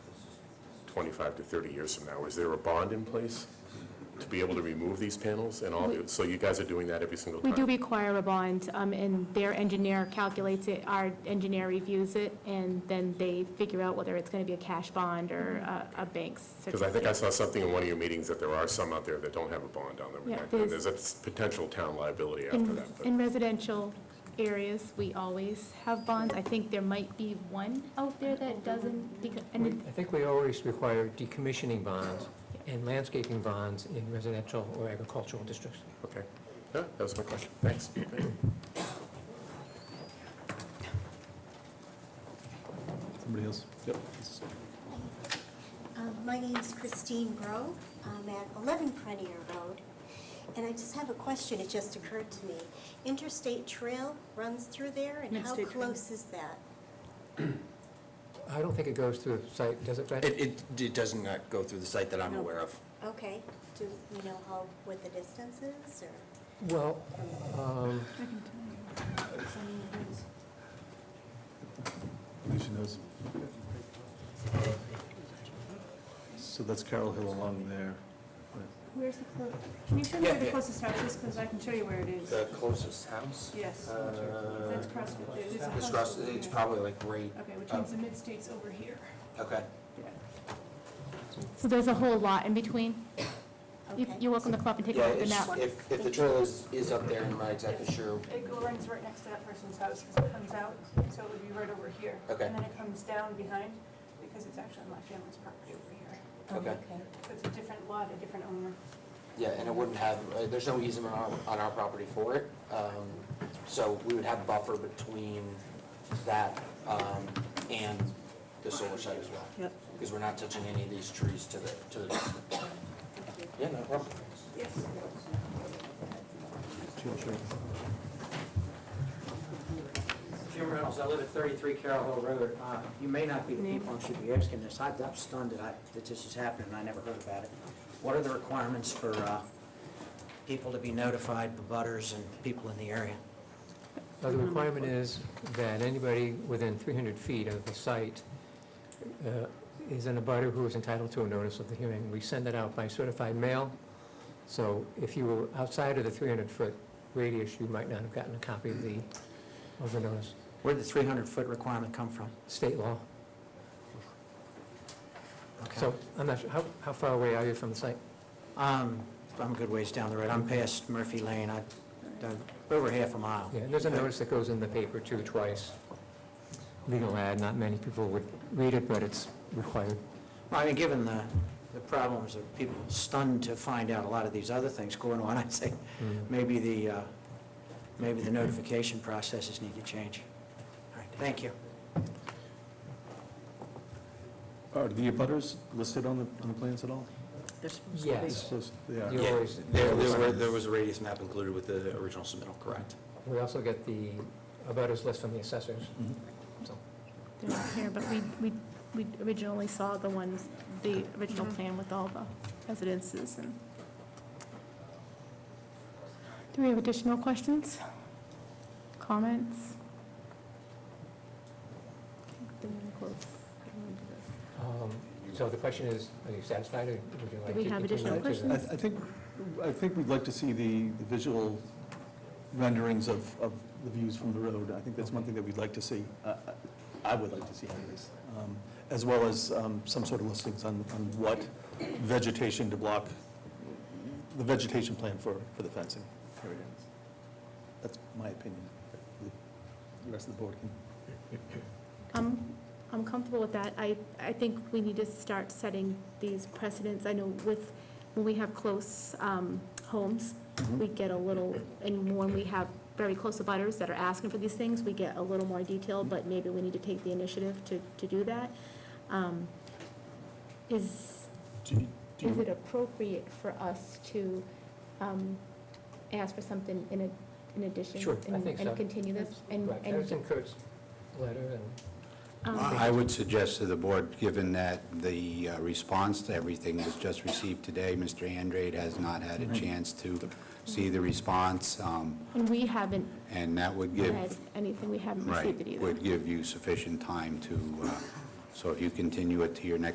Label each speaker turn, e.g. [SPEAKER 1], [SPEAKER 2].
[SPEAKER 1] 25 to 30 years from now, is there a bond in place to be able to remove these panels and all? the- So you guys are doing that every single
[SPEAKER 2] We
[SPEAKER 1] time?
[SPEAKER 2] do require a bond, um, and their engineer calculates it, our engineer reviews it, and then they figure out whether it's going to be a cash bond or a- a bank's
[SPEAKER 1] Because I think I
[SPEAKER 2] certificate.
[SPEAKER 1] saw something in one of your meetings that there are some out there that don't have a bond on them.
[SPEAKER 2] Yeah,
[SPEAKER 1] and that- And
[SPEAKER 2] there's-
[SPEAKER 1] there's a potential town liability after
[SPEAKER 2] In
[SPEAKER 1] that. but-
[SPEAKER 2] in residential areas, we always have bonds. I think there might be one out there that doesn't, because- and it-
[SPEAKER 3] I think we always require decommissioning bonds and landscaping bonds in residential or agricultural districts.
[SPEAKER 1] Okay. Yeah, that was my question. Thanks.
[SPEAKER 4] Somebody else? Yep.
[SPEAKER 5] Um, My name's Christine Grow. I'm at 11 Prenier Road, and I just have a question, it just occurred to me. Interstate Trail runs through there, and how
[SPEAKER 6] Interstate Trail.
[SPEAKER 5] close is that?
[SPEAKER 3] I don't think it goes through the site, does it, Brad?
[SPEAKER 7] It, it, it does not go through the site that I'm aware of.
[SPEAKER 5] Okay, do you know how, what the distance is, or?
[SPEAKER 3] Well, um,
[SPEAKER 4] She knows. So that's Carroll Hill along there. right.
[SPEAKER 6] Where's the closest, can you show me where the
[SPEAKER 7] Yeah.
[SPEAKER 6] closest house is, because I can show you where it is.
[SPEAKER 7] The closest house?
[SPEAKER 6] Yes.
[SPEAKER 7] Uh,
[SPEAKER 6] That's across, it is a
[SPEAKER 7] It's
[SPEAKER 6] house
[SPEAKER 7] across,
[SPEAKER 6] over
[SPEAKER 7] it's
[SPEAKER 6] there.
[SPEAKER 7] probably like right,
[SPEAKER 6] Okay, which
[SPEAKER 7] Oh.
[SPEAKER 6] means the mid-state's over here.
[SPEAKER 7] okay.
[SPEAKER 6] Yeah.
[SPEAKER 2] so there's a whole lot in between. You-
[SPEAKER 5] Okay.
[SPEAKER 2] You're welcome to come up and take a
[SPEAKER 7] Yeah,
[SPEAKER 2] look at the
[SPEAKER 7] it's,
[SPEAKER 2] map.
[SPEAKER 7] if, if the trail is, is up there, I'm not exactly sure.
[SPEAKER 6] It go- runs right next to that person's house, because it comes out, so it would be right over here.
[SPEAKER 7] Okay.
[SPEAKER 6] And then it comes down behind, because it's actually on my family's property over here.
[SPEAKER 7] oh, Okay.
[SPEAKER 6] So it's a different lot, a different owner.
[SPEAKER 7] Yeah, and it wouldn't have, uh, there's no easement on, on our property for it. Um, So we would have buffer between that um, and the solar site as well.
[SPEAKER 6] Yep.
[SPEAKER 7] Because we're not touching any of these trees to the, to the. Yeah, no problem.
[SPEAKER 6] Yes.
[SPEAKER 4] Sure, sure.
[SPEAKER 8] Jim Reynolds, I live at 33 Carroll Hill Road. Uh, You may not be the people who should be asking this. I- I'm stunned that I, that this is happening, and I never heard about it. What are the requirements for uh, people to be notified, butters and people in the area?
[SPEAKER 3] uh, the requirement is that anybody within 300 feet of the site uh, is in a butter who is entitled to a notice of the hearing. We send that out by certified mail, so if you were outside of the 300-foot radius, you might not have gotten a copy of the, of the notice.
[SPEAKER 8] Where'd the 300-foot requirement come from?
[SPEAKER 3] State law.
[SPEAKER 8] Okay.
[SPEAKER 3] So I'm not sure, how, how far away are you from the site?
[SPEAKER 8] Um, I'm a good ways down the road. I'm past Murphy Lane. I, I'm over half a mile.
[SPEAKER 3] Yeah, and there's a notice that goes in the paper too, twice. Legal ad, not many people would read it, but it's required.
[SPEAKER 8] Well, I mean, given the, the problems of people stunned to find out a lot of these other things going on, I'd say maybe the, uh, maybe the notification processes need to change. All right, thank you.
[SPEAKER 4] Are the abutters listed on the, on the plans at all?
[SPEAKER 3] Yes.
[SPEAKER 4] Supposed- They are.
[SPEAKER 3] You always,
[SPEAKER 7] There, there were, there was a radius map included with the original submittal, correct?
[SPEAKER 3] we also get the abutters list from the assessors. So
[SPEAKER 2] They're not here, but we, we, we originally saw the ones, the original plan with all the residences and. Do we have additional questions? Comments? Then we're gonna close.
[SPEAKER 3] um, so the question is, are you satisfied, or would you like to?
[SPEAKER 2] Do we have
[SPEAKER 3] continue
[SPEAKER 2] additional
[SPEAKER 3] to the-
[SPEAKER 4] I, I
[SPEAKER 2] questions?
[SPEAKER 4] think, I think we'd like to see the, the visual renderings of, of the views from the road. I think that's one thing that we'd like to see. Uh, I I would like to see anyways. Um, As well as um, some sort of listings on, on what vegetation to block, the vegetation plan for, for the fencing. There it is. That's my opinion. The rest of the board can
[SPEAKER 2] I'm, I'm comfortable with that. I, I think we need to start setting these precedents. I know with, when we have close um, homes, we get a little, and when we have very close abutters that are asking for these things, we get a little more detail, but maybe we need to take the initiative to, to do that. Um, Is,
[SPEAKER 4] Do you- do
[SPEAKER 2] is
[SPEAKER 4] you-
[SPEAKER 2] it appropriate for us to um, ask for something in, a- in addition?
[SPEAKER 3] Sure, I
[SPEAKER 2] and-
[SPEAKER 3] think so.
[SPEAKER 2] And continue this? And-
[SPEAKER 3] Right, that
[SPEAKER 2] and,
[SPEAKER 3] was in Kurt's letter, and
[SPEAKER 2] um,
[SPEAKER 9] I would suggest to the board, given that the uh, response to everything was just received today, Mr. Andrade has not had a chance to see the response, um,
[SPEAKER 2] And we haven't
[SPEAKER 9] and that would give,
[SPEAKER 2] read anything, we haven't received it
[SPEAKER 9] right,
[SPEAKER 2] either.
[SPEAKER 9] would give you sufficient time to, uh, so if you continue it to your next